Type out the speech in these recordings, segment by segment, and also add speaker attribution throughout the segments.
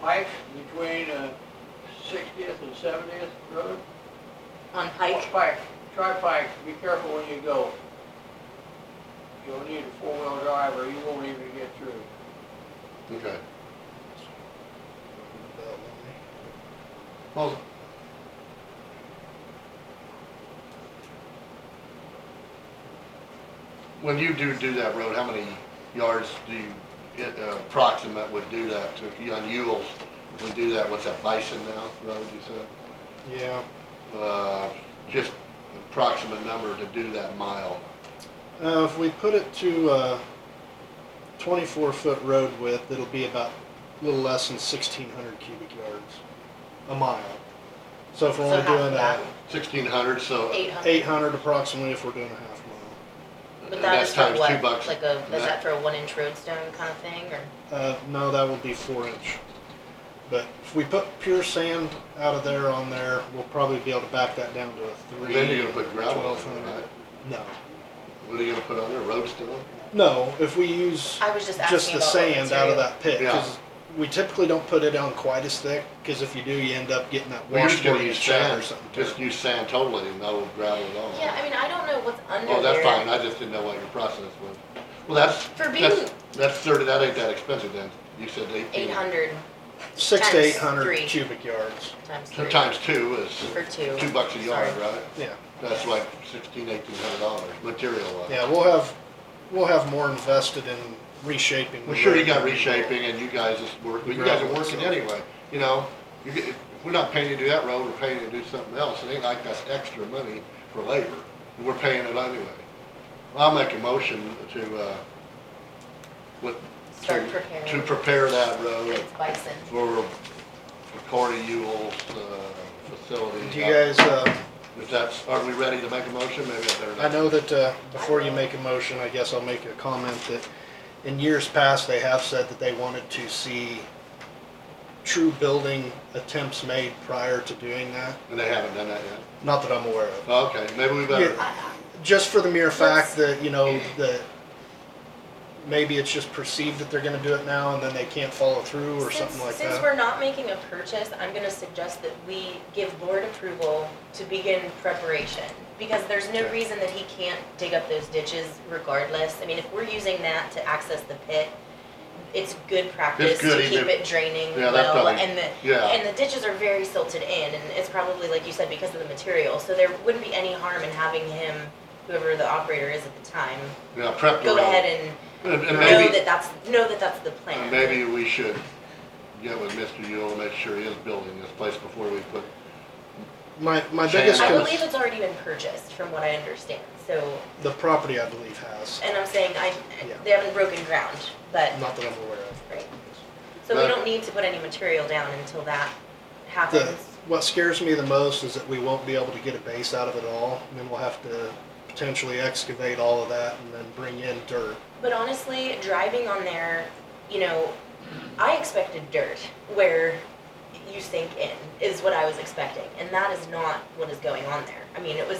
Speaker 1: Pike between uh, Sixtieth and Seventieth Road?
Speaker 2: on Pike.
Speaker 1: Pike, try Pike, be careful when you go. You'll need a four-wheel drive or you won't even get through.
Speaker 3: Okay. Well, when you do do that road, how many yards do you, it, uh, approximate would do that to, you on Yule's? Would do that, what's that, Bison now, road you said?
Speaker 4: Yeah,
Speaker 3: Uh, just approximate number to do that mile.
Speaker 4: uh, if we put it to, uh, twenty-four foot road width, it'll be about a little less than sixteen hundred cubic yards a mile. So if we're
Speaker 2: So
Speaker 4: only
Speaker 2: half of
Speaker 4: doing
Speaker 2: that.
Speaker 4: that,
Speaker 3: Sixteen hundred, so.
Speaker 2: Eight hundred.
Speaker 4: eight hundred approximately if we're doing a half mile.
Speaker 2: But
Speaker 3: and
Speaker 2: that
Speaker 3: that's
Speaker 2: is for
Speaker 3: times
Speaker 2: what?
Speaker 3: two bucks.
Speaker 2: Like a,
Speaker 3: And
Speaker 2: is that
Speaker 3: that-
Speaker 2: for a one inch road stone kind of thing or?
Speaker 4: Uh, no, that would be four inch. But if we put pure sand out of there on there, we'll probably be able to back that down to a three.
Speaker 3: Then you're gonna put gravel on it,
Speaker 4: 1200.
Speaker 3: right?
Speaker 4: No,
Speaker 3: What are you gonna put on there, road stone?
Speaker 4: no, if we use
Speaker 2: I was just
Speaker 4: just
Speaker 2: asking
Speaker 4: the
Speaker 2: about what
Speaker 4: sand out
Speaker 2: material.
Speaker 4: of that pit, cause we typically don't put it on quite as thick, cause if you do, you end up getting that
Speaker 3: Well, you're just gonna
Speaker 4: washboard in the
Speaker 3: use
Speaker 4: shot or
Speaker 3: sand,
Speaker 4: something.
Speaker 3: just use sand totally, no gravel at all.
Speaker 2: Yeah, I mean, I don't know what's under there.
Speaker 3: Oh, that's fine, I just didn't know what your process was. Well, that's,
Speaker 2: For
Speaker 3: that's,
Speaker 2: being-
Speaker 3: that's thirty, that ain't that expensive then, you said eighteen.
Speaker 2: Eight hundred
Speaker 4: Six to
Speaker 2: times
Speaker 4: eight hundred
Speaker 2: three.
Speaker 4: cubic yards,
Speaker 2: times three.
Speaker 3: So times two is
Speaker 2: Or two.
Speaker 3: two bucks a yard,
Speaker 2: Sorry.
Speaker 3: right?
Speaker 4: yeah,
Speaker 3: That's like sixteen, eighteen hundred dollars, material wise.
Speaker 4: yeah, we'll have, we'll have more invested in reshaping. the
Speaker 3: Well, sure, you
Speaker 4: road.
Speaker 3: got reshaping and you guys just work, you guys are
Speaker 4: Gravel,
Speaker 3: working
Speaker 4: so.
Speaker 3: anyway, you know? You get, if we're not paying you to do that road, we're paying you to do something else, it ain't like that's extra money for labor, we're paying it anyway. I'll make a motion to, uh, with,
Speaker 2: Start
Speaker 3: to,
Speaker 2: preparing.
Speaker 3: to prepare that road
Speaker 2: It's bison.
Speaker 3: for for Corey Yule's, uh, facility.
Speaker 4: Do you guys, uh,
Speaker 3: If that's, are we ready to make a motion, maybe I better.
Speaker 4: I know that, uh, before you make a motion, I guess I'll make a comment that in years past, they have said that they wanted to see true building attempts made prior to doing that,
Speaker 3: And they haven't done that yet, Oh,
Speaker 4: not that I'm aware of.
Speaker 3: okay, maybe we better.
Speaker 4: Yeah. Just for the mere
Speaker 2: Let's-
Speaker 4: fact that, you know, that maybe it's just perceived that they're gonna do it now and then they can't follow through or something
Speaker 2: Since-
Speaker 4: like
Speaker 2: Since
Speaker 4: that.
Speaker 2: we're not making a purchase, I'm gonna suggest that we give board approval to begin preparation. Because there's no
Speaker 4: Okay.
Speaker 2: reason that he can't dig up those ditches regardless. I mean, if we're using that to access the pit, it's good practice
Speaker 3: good,
Speaker 2: to keep
Speaker 3: even-
Speaker 2: it draining
Speaker 3: Yeah, that's
Speaker 2: well.
Speaker 3: probably-
Speaker 2: And the,
Speaker 3: yeah.
Speaker 2: and the ditches are very silted in and it's probably, like you said, because of the material. So there wouldn't be any harm in having him, whoever the operator is at the time,
Speaker 3: Yeah, prep the
Speaker 2: go
Speaker 3: road.
Speaker 2: ahead and
Speaker 3: And- and
Speaker 2: know
Speaker 3: maybe-
Speaker 2: that that's, know that that's the
Speaker 3: And
Speaker 2: plan.
Speaker 3: maybe we should get with Mr. Yule and make sure he is building this place before we put,
Speaker 4: My, my
Speaker 3: Sand.
Speaker 4: biggest,
Speaker 2: I
Speaker 3: Because-
Speaker 2: believe it's already been purchased, from what I understand, so,
Speaker 4: con- the property I believe has,
Speaker 2: and I'm saying I,
Speaker 4: Yeah.
Speaker 2: they haven't broken ground, but,
Speaker 4: not that I'm aware of.
Speaker 2: right. So we
Speaker 3: But-
Speaker 2: don't need to put any material down until that
Speaker 4: The,
Speaker 2: happens.
Speaker 4: what scares me the most is that we won't be able to get a base out of it all, and then we'll have to potentially excavate all of that and then bring in dirt.
Speaker 2: But honestly, driving on there, you know, I expected dirt where you sink in, is what I was expecting, and that is not what is going on there. I mean, it was,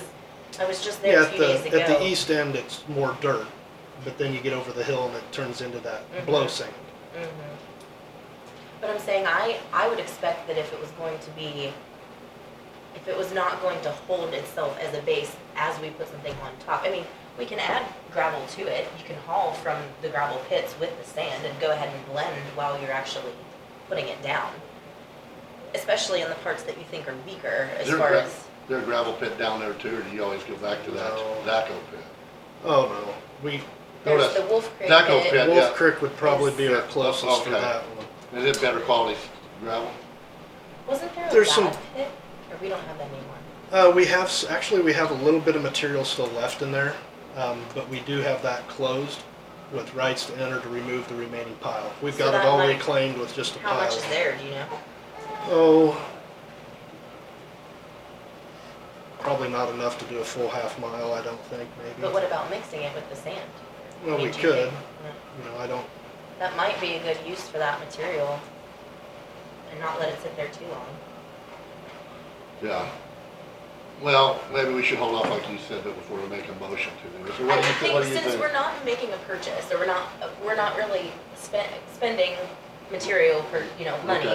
Speaker 2: I was just there
Speaker 4: Yeah,
Speaker 2: a
Speaker 4: at
Speaker 2: few
Speaker 4: the,
Speaker 2: days ago.
Speaker 4: at the east end, it's more dirt, but then you get over the hill and it turns into
Speaker 2: Mhm.
Speaker 4: that blow sand.
Speaker 2: Mhm. Mm-hmm. But I'm saying, I, I would expect that if it was going to be, if it was not going to hold itself as a base as we put something on top, I mean, we can add gravel to it, you can haul from the gravel pits with the sand and go ahead and blend while you're actually putting it down. Especially in the parts that you think are weaker as
Speaker 3: They're
Speaker 2: far
Speaker 3: gra-
Speaker 2: as,
Speaker 3: their gravel pit down there too, or do you always go back to that
Speaker 4: No.
Speaker 3: Zaco pit?
Speaker 4: Oh, no, we,
Speaker 3: No,
Speaker 2: there's the Wolf Creek pit.
Speaker 3: Zaco pit. Yeah, yeah.
Speaker 4: Wolf Creek would probably be our
Speaker 3: Yeah,
Speaker 4: closest for
Speaker 3: okay.
Speaker 4: that one.
Speaker 3: Is it better quality gravel?
Speaker 2: Wasn't there a
Speaker 4: There's some-
Speaker 2: bad pit? Or we don't have that anymore?
Speaker 4: Uh, we have, s- actually, we have a little bit of material still left in there, um, but we do have that closed with rights to enter to remove the remaining pile. We've
Speaker 2: So
Speaker 4: got
Speaker 2: that
Speaker 4: it all
Speaker 2: might-
Speaker 4: reclaimed with just a pile.
Speaker 2: How much is there, do you know?
Speaker 4: Oh, probably not enough to do a full half mile, I don't think, maybe.
Speaker 2: But what about mixing it with the sand?
Speaker 4: Well, we
Speaker 2: Do you
Speaker 4: could,
Speaker 2: think- yeah.
Speaker 4: you know, I don't,
Speaker 2: That might be a good use for that material and not let it sit there too long.
Speaker 3: Yeah. Well, maybe we should hold off like you said, but before we make a motion to do it. So
Speaker 2: I
Speaker 3: what
Speaker 2: would
Speaker 3: do you, thi-
Speaker 2: think
Speaker 3: what do you
Speaker 2: since
Speaker 3: think?
Speaker 2: we're not making a purchase or we're not, we're not really spend, spending material for, you know, money.
Speaker 3: Okay.